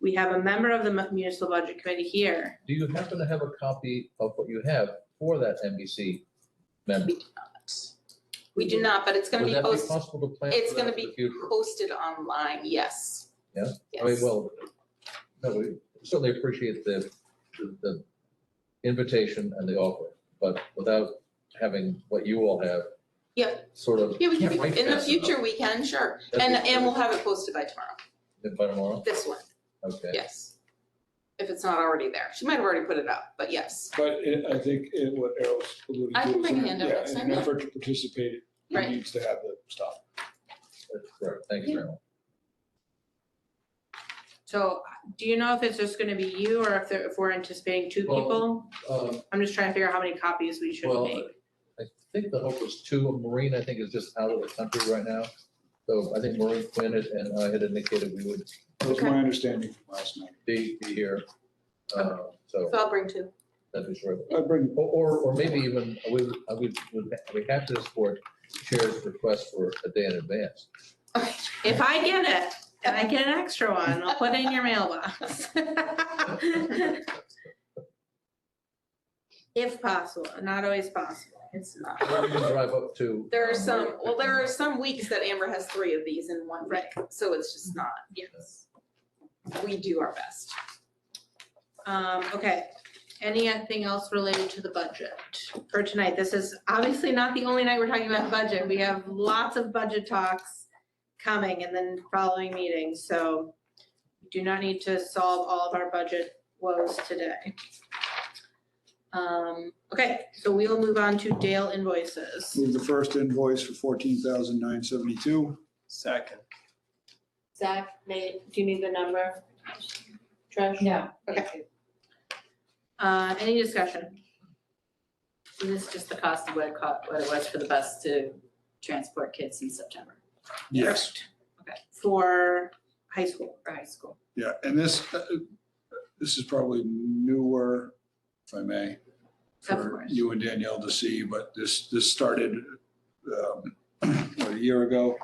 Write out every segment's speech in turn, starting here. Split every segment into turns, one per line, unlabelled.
We have a member of the mu- municipal budget committee here.
Do you happen to have a copy of what you have for that NBC member?
We do not, but it's gonna
Would
be
that be
posted,
possible to plan
it's
for
gonna
that in
be
the future?
posted online, yes.
Yeah? I mean,
Yes.
well, no, we certainly appreciate the, the invitation and the offer, but without having what you all have.
Yeah.
Sort of.
Yeah, we can,
Can't write
in the
fast
future, we can, sure.
That'd
And,
be
and
great.
we'll have it posted by tomorrow,
Then By tomorrow,
this one,
okay.
yes. If it's not already there. She might have already put it up, but yes,
But it- I think it- what Errol's alluding to.
I can bring
is
a hand up
yeah,
next
In
time,
an
yeah.
effort to participate, he
right.
needs to have the stuff.
That's correct. Thank you very much.
So do you know if it's just gonna be you or if there, if we're anticipating two
Well,
people?
Um,
I'm just trying to figure out how many copies we should
Well,
make.
I think the hope was two. Maureen, I think, is just out of the country right now. So I think Maureen Quinn had- and I had indicated we would
That was
Okay.
my understanding from last night.
be, be here. Uh,
So
So
I'll bring two.
that'd be sure.
I bring,
Or, or, or maybe even, uh, we, would- I would, would, we have to support chair's request for a day in advance.
If I get it, and I get an extra one, I'll put it in your mailbox. If possible, not always possible, it's
Or
not.
we can drive up to.
There are
um,
some, well, there are some weeks that Amber has three of these in one week, so it's just not, yes. We do our best. Um, okay, anything else related to the budget for tonight? This is obviously not the only night we're talking about budget. We have lots of budget talks coming and then following meetings, so we do not need to solve all of our budget woes today. Um, okay, so we will move on to Dale invoices.
move the first invoice for fourteen thousand nine seventy-two.
Second.
Zach, Nate, do you need the number? Trish?
No.
Okay. Uh, any discussion?
And this is just the cost of what it cost, what it was for the bus to transport kids in September
Yes,
For high school.
for high school.
yeah, and this, uh, this is probably newer, if I may,
Of
for
course.
you and Danielle to see, but this, this started um, a year ago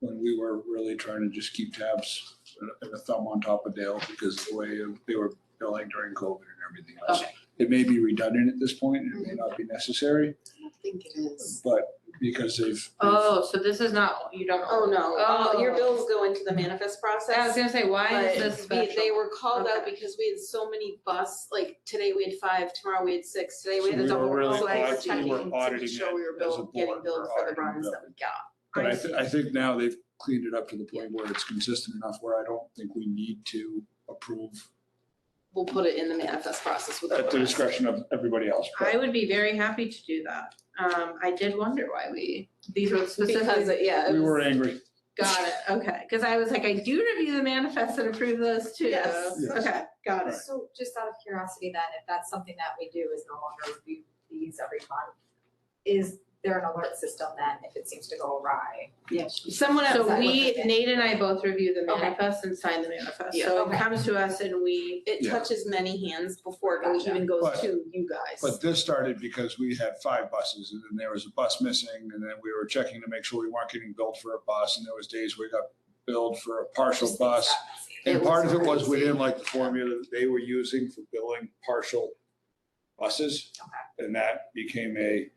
when we were really trying to just keep tabs and a thumb on top of Dale because the way they were billing during COVID and everything else.
Okay.
It may be redundant at this point, it may not be necessary,
I don't think it is.
but because they've.
Oh, so this is not, you don't.
Oh, no, all, your
Oh.
bills go into the manifest
I was
process.
gonna say, why
But
is this
we- They
special?
were called out
Okay.
because we had so many bus, like, today we had five, tomorrow we had six, today we
So
had a
we were
double.
really
So I was
auditing- we were
checking to make
auditing
sure we were
it as a
bill- getting
board, we
billed
were
for the
auditing
runs
them.
that we got.
But I, thi- I think now they've cleaned it up to the point where it's consistent enough where I don't think we need to approve
We'll put it in the manifest process with.
at the
everyone else.
discretion of everybody else. but-
I would be very happy to do that. Um, I did wonder why we, these were
Because,
specifically,
it- yeah. it
We
was-
were angry.
got it, okay. Cause I was like, I do review the manifest and approve those too.
Yes.
Yes.
Okay, got it.
So just out of curiosity then, if that's something that we do is no longer review these every month, is there an alert system then if it seems to go awry?
Yes.
Someone
else
So
I
we,
looked at.
Nate and I both review the
Okay.
manifest and sign the manifest.
Yeah.
So it
Okay.
comes to us and we,
It
Yeah.
touches many hands before it
Gotcha.
even goes
But-
to you guys.
But this started because we had five buses and then there was a bus missing and then we were checking to make sure we weren't getting billed for a bus. And there was days we got billed for a partial
Just
bus.
discrepancy.
And
It
part
was
of it was
crazy.
we didn't like the formula that they were using for billing partial buses. And that became a,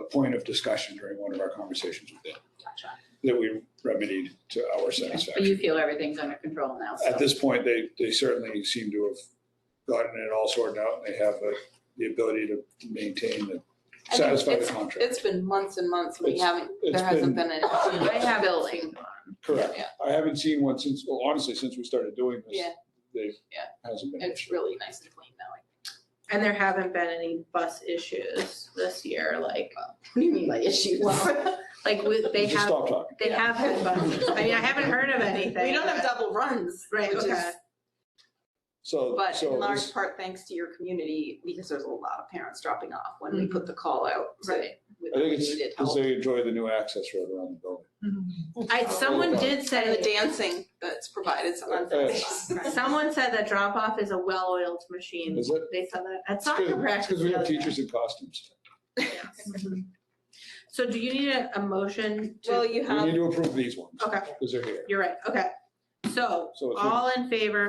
a point of discussion during one of our conversations with them
Gotcha.
that we remedied to our
But
satisfaction.
you feel everything's under control now,
At
so.
this point, they, they certainly seem to have gotten it all sorted out. They have uh, the ability to maintain
I
and
think
satisfy the
it's-
contract.
It's been months and months, we
It's-
haven't,
it's
there hasn't been a.
I have billing.
Correct.
Yeah.
I haven't seen one since, well, honestly, since we started doing this.
Yeah.
They,
Yeah.
hasn't been. an
It's
issue.
really nice and clean now.
And there haven't been any bus issues this year, like,
What do you mean by issues?
Well, like we, they
Just
have,
stop talking.
they have had buses. I mean, I haven't heard of anything.
We don't have double runs,
Right,
which is-
okay.
So,
but
so
in
this-
large part thanks to your community, because there's a lot of parents dropping off when we put the call out. to-
Right.
with-
I
We
think
needed
it's, because
help.
they enjoy the new access road around the building.
I, someone did
And the
say,
dancing that's provided on Fridays.
someone said that drop off is a well-oiled machine.
Is it?
They said that at
It's
soccer practice.
because we
the
have
other day.
teachers in costumes.
Yes. So do you need a, a motion
Well,
to,
you
We
have
need to approve these ones
okay,
because they're here.
you're right, okay. So
So it's. a-
all in favor